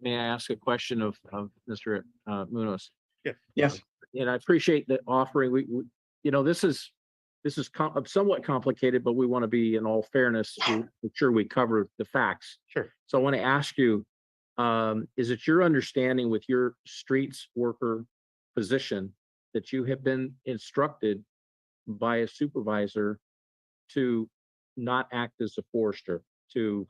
may I ask a question of, of Mr. uh, Munoz? Yes, And I appreciate the offering. We, we- you know, this is, this is com- uh, somewhat complicated, but we want to be in all fairness, to make sure we cover the facts. Sure. So I want to ask you, um, is it your understanding with your streets worker position that you have been instructed by a supervisor to not act as a forester, to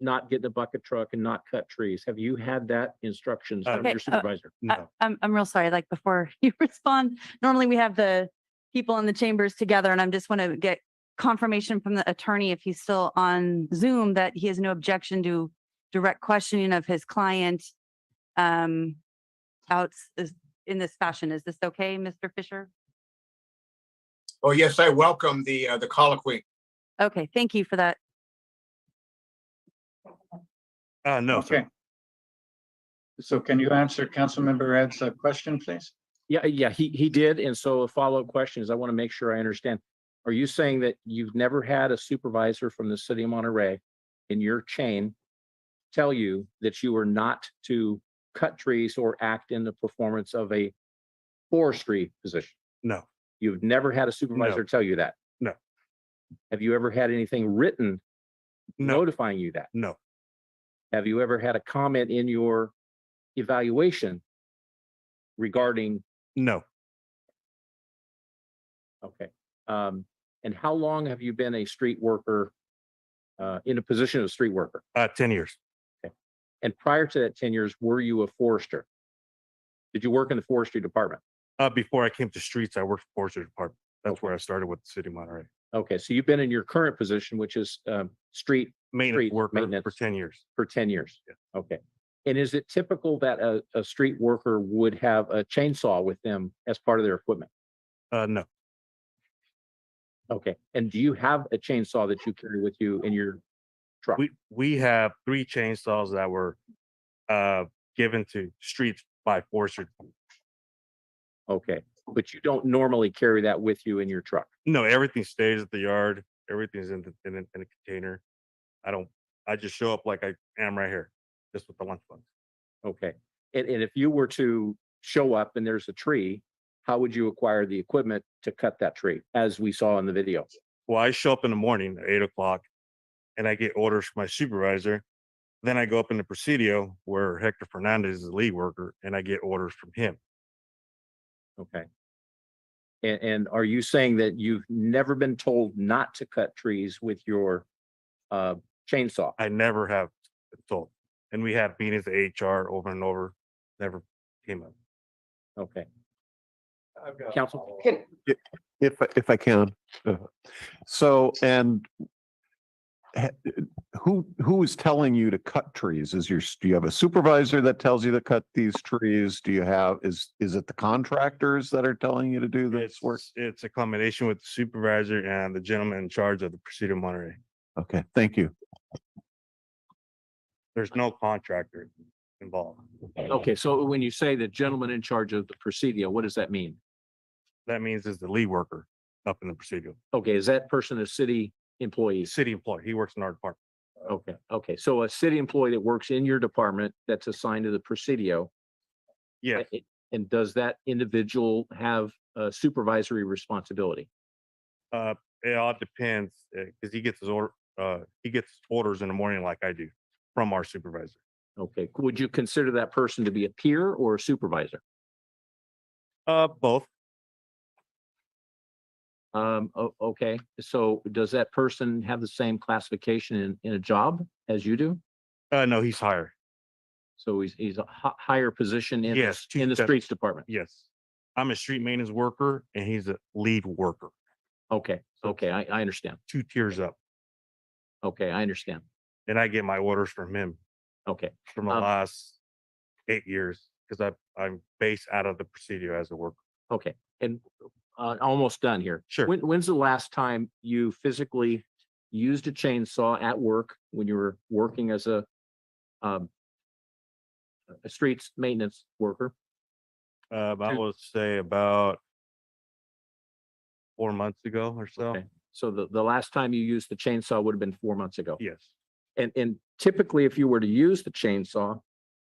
not get in a bucket truck and not cut trees? Have you had that instructions Uh, from your Okay, uh, supervisor? I- no, I'm, I'm real sorry, like before you respond, normally we have the people in the chambers together and I'm just want to get confirmation from the attorney if he's still on Zoom that he has no objection to direct questioning of his client um out is- in this fashion. Is this okay, Mr. Fisher? Oh, yes, I welcome the, uh, the colloquy. Okay, thank you for that. Uh, no, sir. okay. So can you answer Councilmember Ed's uh, question, please? Yeah, yeah, he, he did. And so a follow-up question is, I want to make sure I understand. Are you saying that you've never had a supervisor from the city of Monterey in your chain tell you that you are not to cut trees or act in the performance of a forestry position? No, You've never had a supervisor tell you that? No. Have you ever had anything written no, notifying you that? no, Have you ever had a comment in your evaluation regarding no, Okay. Um, and how long have you been a street worker? Uh, in a position of street worker? uh, ten years. And prior to that ten years, were you a forester? Did you work in the forestry department? Uh, before I came to streets, I worked for forestry department. That's where I started with the city of Monterey. Okay, so you've been in your current position, which is, um, street Maintenance Streets, worker for maintenance. ten years. for ten years? Okay. And is it typical that a, a street worker would have a chainsaw with them as part of their equipment? Uh, no, Okay, and do you have a chainsaw that you carry with you in your truck? we, we have three chainsaws that were, uh, given to streets by forestry. Okay, but you don't normally carry that with you in your truck? No, everything stays at the yard. Everything's in the, in a, in a container. I don't, I just show up like I am right here, just with the lunch box. Okay, and, and if you were to show up and there's a tree, how would you acquire the equipment to cut that tree, as we saw in the video? Well, I show up in the morning at eight o'clock and I get orders from my supervisor. Then I go up in the Presidio where Hector Fernandez is the lead worker and I get orders from him. Okay. And, and are you saying that you've never been told not to cut trees with your uh, chainsaw? I never have been told. And we had meetings at HR over and over, never came up. Okay, I've got. Counsel? If, I- if I can. uh, So, and ha- who, who is telling you to cut trees? Is your, s- do you have a supervisor that tells you to cut these trees? Do you have, is, is it the contractors that are telling you to do this work? It's, it's a combination with the supervisor and the gentleman in charge of the Presidio Monterey. Okay, thank you. There's no contractor involved. okay, so when you say the gentleman in charge of the Presidio, what does that mean? That means is the lead worker up in the Presidio, Okay, is that person a city employee? city employee. He works in our department. Okay, okay, so a city employee that works in your department that's assigned to the Presidio Yeah, A- And does that individual have a supervisory responsibility? Uh, it all depends, because he gets his order, uh, he gets orders in the morning like I do from our supervisor. Okay, would you consider that person to be a peer or a supervisor? Uh, both, Um, o- okay, so does that person have the same classification in, in a job as you do? uh, no, he's higher, So he's, he's a hi- higher position in, the Yes, s- chief in the def- streets department? yes. I'm a street maintenance worker and he's a lead worker, Okay, So okay, I, I understand. two tiers up. Okay, I understand. And I get my orders from him Okay, from the Um, last eight years, because I, I'm based out of the Presidio as a worker. okay, and, uh, almost done here. Sure, When, when's the last time you physically used a chainsaw at work when you were working as a um a streets maintenance worker? uh, I would say about four months ago or so, Okay. So the, the last time you used the chainsaw would have been four months ago. yes. And, and typically, if you were to use the chainsaw,